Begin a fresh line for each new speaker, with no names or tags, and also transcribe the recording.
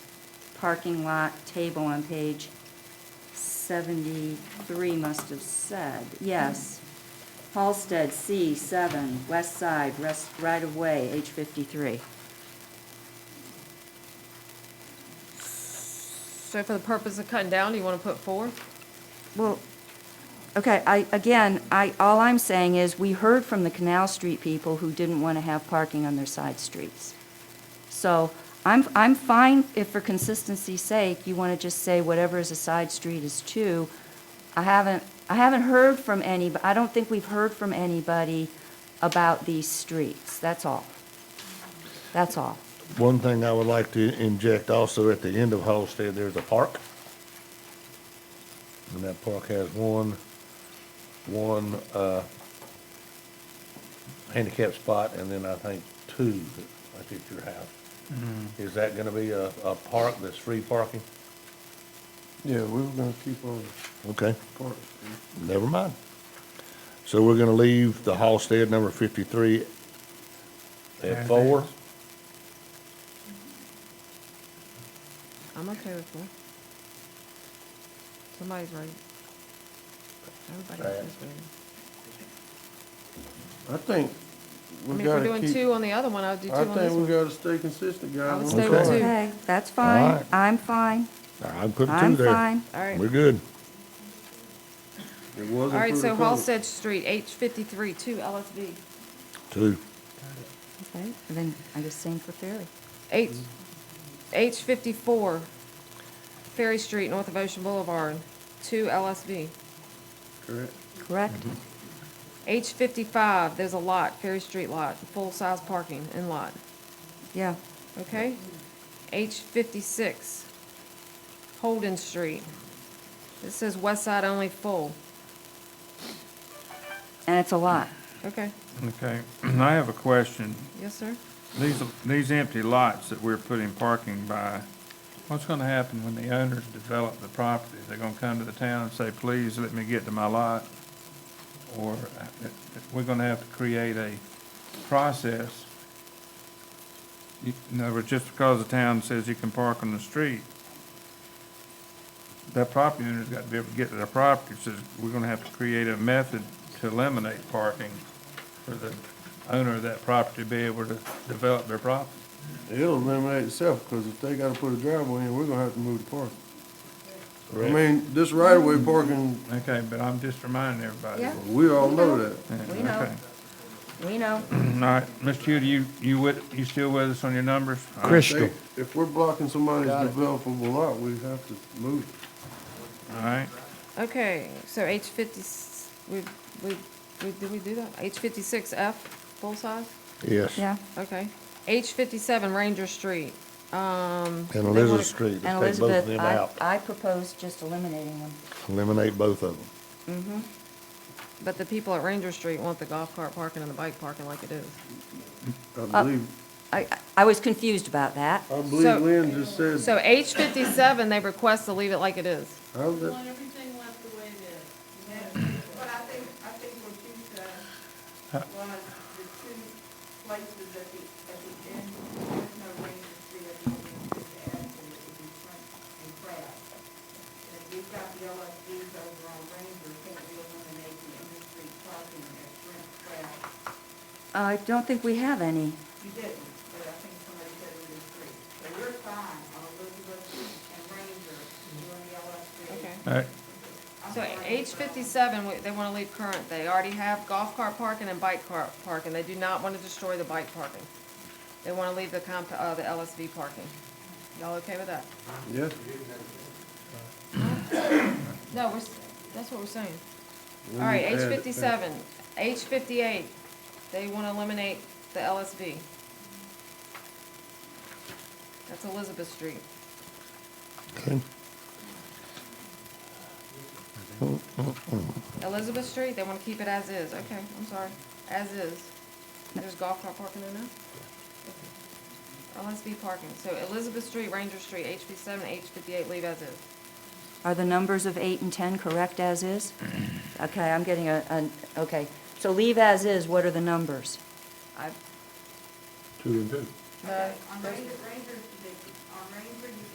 parking lot table on page 73 must have said, yes. Halsted, C7, west side, rest, right-of-way, H 53.
So for the purpose of cutting down, do you want to put four?
Well, okay, I, again, I, all I'm saying is, we heard from the Canal Street people who didn't want to have parking on their side streets. So I'm, I'm fine if for consistency's sake, you want to just say whatever is a side street is two. I haven't, I haven't heard from any, but I don't think we've heard from anybody about these streets, that's all. That's all.
One thing I would like to inject also at the end of Halsted, there's a park. And that park has one, one, uh, handicap spot and then I think two that- that's at your house. Is that gonna be a, a park that's free parking?
Yeah, we were gonna keep on
Okay.
parking.
Never mind. So we're gonna leave the Halsted number fifty-three at four?
I'm okay with four. Somebody's right. Everybody
Right.
else is right.
I think
I
we
mean, if we're
gotta
doing
keep,
two on the other one, I'll do two
I
on this
think we
one.
gotta stay consistent, guys.
I would
on
stay
with
parking.
two.
Okay, that's
All
fine,
right.
I'm fine,
I'm putting two
I'm
there.
fine.
All right.
We're good.
It
All
wasn't
right,
for the
so
public.
Halsted Street, H fifty-three, two LSV.
Two.
Okay, and then I guess same for Ferry.
H, H fifty-four, Ferry Street, north of Ocean Boulevard, two LSV.
Correct.
Correct?
H fifty-five, there's a lot, Ferry Street lot, full-size parking and lot,
Mm-hmm.
Yeah,
okay? H fifty-six, Holden Street. This says west side only full,
and it's a lot.
okay,
Okay, I have a question.
yes, sir?
These, these empty lots that we're putting parking by, what's gonna happen when the owners develop the property? They're gonna come to the town and say, please let me get to my lot? Or uh, we're gonna have to create a process? You- In other words, just because the town says you can park on the street, that property owner's got to be able to get to their property, so we're gonna have to create a method to eliminate parking for the owner of that property to be able to develop their property.
It'll eliminate itself, cause if they gotta put a driveway in, we're gonna have to move the parking. I mean, this right of way parking,
Okay, but I'm just reminding everybody.
Yeah.
we all know that.
Yeah,
We know.
okay.
We know.
All right, Mr. Hugh, you, you with, you still with us on your numbers? All right.
They- If we're blocking somebody's developable lot, we have to move it.
All right,
Okay, so H fifty, we, we, we, did we do that? H fifty-six F, full size?
Yes.
Yeah,
Okay. H fifty-seven Ranger Street, um.
And
they wanna-
Elizabeth Street,
and
let's take both
Elizabeth,
of them
I,
out.
I propose just eliminating them.
Eliminate both of them.
But the people at Ranger Street want the golf cart parking and the bike parking like it is.
I believe,
I, I was confused about that.
I
Uh, So-
believe Lynn just said,
So H fifty-seven, they request to leave it like it is.
how's
We
that?
want everything left the way it is.
But I think, I think what you said was the two places at the, at the end, there's no Ranger Street at the end, it's the end, and it would be Frank and Pratt. And if you've got the LSDs over on Ranger, can't we eliminate the end of street parking at Frank Pratt?
I don't think we have any.
You didn't, but I think somebody said it was three. So we're fine on Elizabeth and Ranger doing the LSD.
Okay.
all right.
So H fifty-seven, we- they wanna leave current. They already have golf cart parking and bike cart parking. They do not wanna destroy the bike parking. They wanna leave the comp, uh, the LSV parking. Y'all okay with that?
Yeah,
No, we're, s- that's what we're saying.
We
All right, H
need to add it.
fifty-seven, H fifty-eight, they want to eliminate the LSV. That's Elizabeth Street. Elizabeth Street, they want to keep it as is, okay, I'm sorry, as is. There's golf cart parking in there? LSV parking, so Elizabeth Street, Ranger Street, H fifty-seven, H fifty-eight, leave as is.
Are the numbers of eight and 10 correct as is? Okay, I'm getting a, an- okay. So leave as is, what are the numbers?
I,
Two and two.
no,
On Ranger, Ranger's the